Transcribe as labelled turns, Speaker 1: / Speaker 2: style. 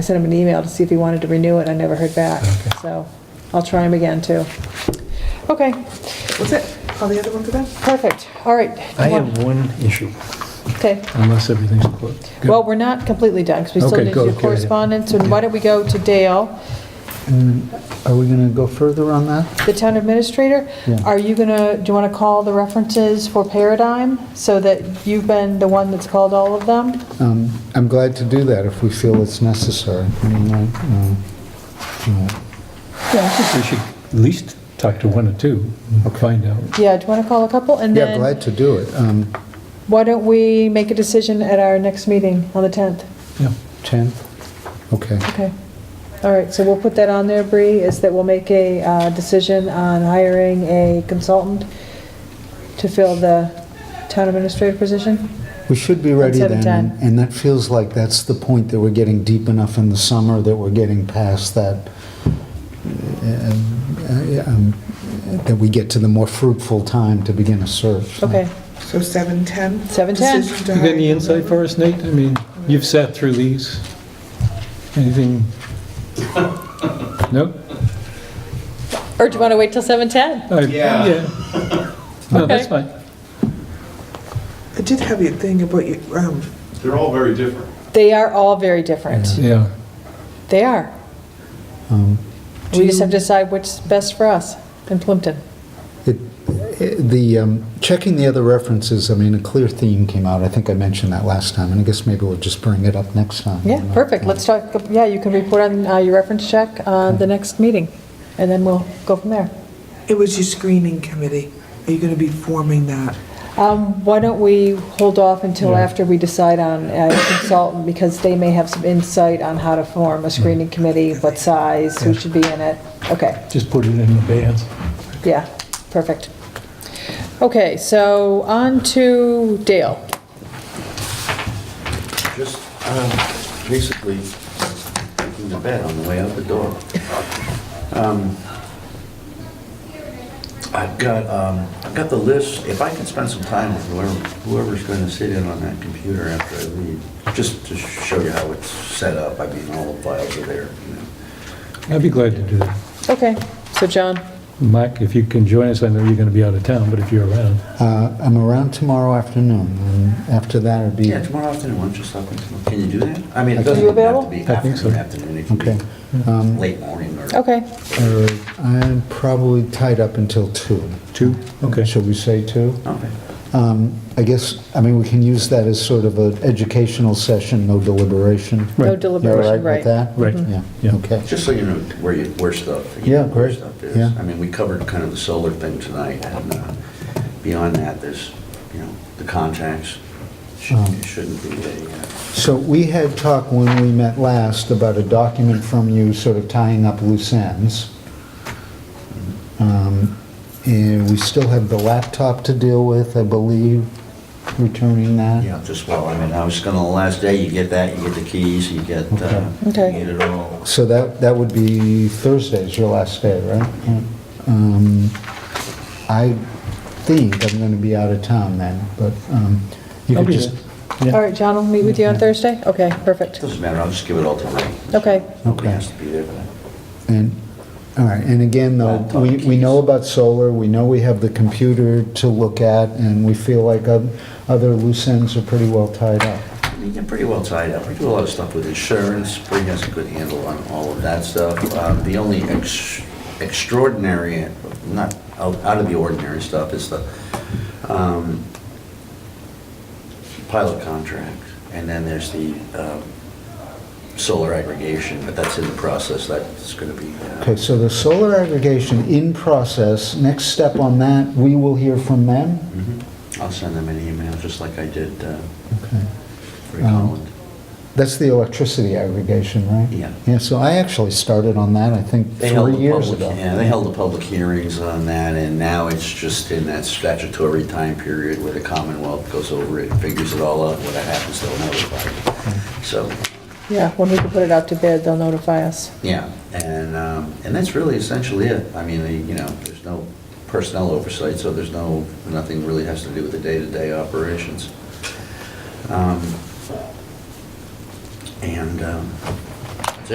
Speaker 1: I sent him an email to see if he wanted to renew it, I never heard back, so I'll try him again, too. Okay,
Speaker 2: What's it? All the other ones are done?
Speaker 1: perfect, all right.
Speaker 3: I have one issue,
Speaker 1: Okay,
Speaker 3: unless everything's closed. Good.
Speaker 1: well, we're not completely done, because we still
Speaker 3: Okay,
Speaker 1: need
Speaker 3: go,
Speaker 1: to do
Speaker 3: okay.
Speaker 1: correspondence, and why don't we go to Dale,
Speaker 4: And are we going to go further on that?
Speaker 1: the town administrator?
Speaker 4: Yeah.
Speaker 1: Are you gonna, do you want to call the references for Paradigm, so that you've been the one that's called all of them?
Speaker 4: Um, I'm glad to do that if we feel it's necessary. I mean, I, um,
Speaker 3: Yeah, I think we should at least talk to one or two, find out.
Speaker 1: Yeah, do you want to call a couple, and
Speaker 4: Yeah,
Speaker 1: then,
Speaker 4: glad to do it. Um,
Speaker 1: why don't we make a decision at our next meeting on the 10th?
Speaker 3: Yeah,
Speaker 4: 10? Okay.
Speaker 1: Okay. All right, so we'll put that on there, Bree, is that we'll make a uh, decision on hiring a consultant to fill the town administrator position?
Speaker 4: We should be ready
Speaker 1: Instead
Speaker 4: then.
Speaker 1: of
Speaker 4: and-
Speaker 1: 10.
Speaker 4: And that feels like that's the point that we're getting deep enough in the summer that we're getting past that, uh, um, that we get to the more fruitful time to begin a search.
Speaker 1: Okay,
Speaker 2: So 7:10?
Speaker 1: 7:10.
Speaker 2: Decision to
Speaker 3: You got any
Speaker 2: hire.
Speaker 3: insight for us, Nate? I mean, you've sat through these. Anything? No?
Speaker 1: or do you want to wait till 7:10?
Speaker 3: I-
Speaker 5: Yeah.
Speaker 3: No, that's
Speaker 1: Okay.
Speaker 3: fine.
Speaker 2: I did have your thing about your, um,
Speaker 5: They're all very different.
Speaker 1: They are all very different.
Speaker 3: Yeah,
Speaker 1: They are.
Speaker 4: Um,
Speaker 1: We just have to decide what's best for us in Plimpton.
Speaker 4: It- it- The, um, checking the other references, I mean, a clear theme came out, I think I mentioned that last time, and I guess maybe we'll just bring it up next time. Uh,
Speaker 1: Yeah, perfect, let's talk, yeah, you can report on uh, your reference check on the next meeting, and then we'll go from there.
Speaker 2: it was your screening committee. Are you going to be forming that?
Speaker 1: Um, Why don't we hold off until
Speaker 3: Yeah.
Speaker 1: after we decide on a consultant, because they may have some insight on how to form a screening committee, what size, who should be in it. Okay,
Speaker 3: just put it in the bands.
Speaker 1: yeah, perfect. Okay, so on to Dale.
Speaker 6: Just um, basically in the bed on the way out the door. Um, I've got, um, I've got the list, if I can spend some time with whoever, whoever's going to sit in on that computer after I leave, just to show you how it's set up, I mean, all the files are there. you know.
Speaker 3: I'd be glad to do that.
Speaker 1: Okay, so John,
Speaker 3: Mike, if you can join us, I know you're going to be out of town, but if you're around.
Speaker 4: Uh, I'm around tomorrow afternoon, and after that it'd be,
Speaker 6: Yeah, tomorrow afternoon, why don't you stop in tomorrow? Can you do that? I mean,
Speaker 4: Are
Speaker 6: it doesn't
Speaker 1: you
Speaker 6: have to
Speaker 1: available?
Speaker 6: be
Speaker 3: I think so.
Speaker 6: afternoon, afternoon, it can
Speaker 4: okay.
Speaker 6: be
Speaker 4: Um,
Speaker 6: late morning or...
Speaker 1: okay,
Speaker 4: or I'm probably tied up until two.
Speaker 3: Two? Okay.
Speaker 4: Should we say two?
Speaker 6: Okay.
Speaker 4: Um, I guess, I mean, we can use that as sort of an educational session, no deliberation.
Speaker 1: no
Speaker 3: Right.
Speaker 4: You all
Speaker 1: deliberation,
Speaker 4: right with
Speaker 1: right.
Speaker 4: that?
Speaker 3: Right.
Speaker 4: Yeah,
Speaker 3: Yeah.
Speaker 4: okay.
Speaker 6: Just so you know where you, where stuff. you
Speaker 4: Yeah,
Speaker 6: know where
Speaker 4: great,
Speaker 6: stuff is.
Speaker 4: yeah.
Speaker 6: I mean, we covered kind of the solar thing tonight, and uh, beyond that, there's, you know, the contacts.
Speaker 4: Um.
Speaker 6: Shouldn't shouldn't be a, uh,
Speaker 4: So we had talked when we met last about a document from you sort of tying up loose ends. Um, And we still have the laptop to deal with, I believe, returning that.
Speaker 6: you know, just, well, I mean, I was gonna, the last day, you get that, you get the keys, you get, uh, you
Speaker 1: Okay.
Speaker 6: get it all.
Speaker 4: So that, that would be Thursday's your last day, right? Yeah. Um, I think I'm going to be out of town then, but um, you
Speaker 3: I'll
Speaker 4: could
Speaker 3: be
Speaker 4: just...
Speaker 3: there.
Speaker 4: Yeah.
Speaker 1: All right, John will meet with you on Thursday? Okay, perfect.
Speaker 6: Doesn't matter, I'll just give it all to Ray.
Speaker 1: Okay.
Speaker 6: Nobody
Speaker 4: Okay.
Speaker 6: has to be there for that.
Speaker 4: And, all right, and again, though,
Speaker 6: Laptop
Speaker 4: we, we
Speaker 6: keys.
Speaker 4: know about solar, we know we have the computer to look at, and we feel like oth- other loose ends are pretty well tied up.
Speaker 6: I mean, you're pretty well tied up. We do a lot of stuff with insurance. Bree has a good handle on all of that stuff. Um, The only ex- extraordinary, not out out of the ordinary stuff is the um, pilot contract. And then there's the um, solar aggregation, but that's in the process. That's going to be. uh,
Speaker 4: Okay, so the solar aggregation in process, next step on that, we will hear from them?
Speaker 6: mhm. I'll send them an email, just like I did uh,
Speaker 4: Okay.
Speaker 6: for
Speaker 4: Um,
Speaker 6: Holland.
Speaker 4: That's the electricity aggregation, right?
Speaker 6: Yeah.
Speaker 4: Yeah, so I actually started on that, I think,
Speaker 6: They held
Speaker 4: three
Speaker 6: the
Speaker 4: years
Speaker 6: public-
Speaker 4: ago.
Speaker 6: Yeah, they held the public hearings on that, and now it's just in that statutory time period where the Commonwealth goes over it, figures it all out, what happens, they'll notify. So,
Speaker 1: Yeah, when we can put it out to bid, they'll notify us.
Speaker 6: yeah, and, um, and that's really essentially it. I mean, they- you know, there's no personnel oversight, so there's no, nothing really has to do with the day-to-day operations. Um, And, um,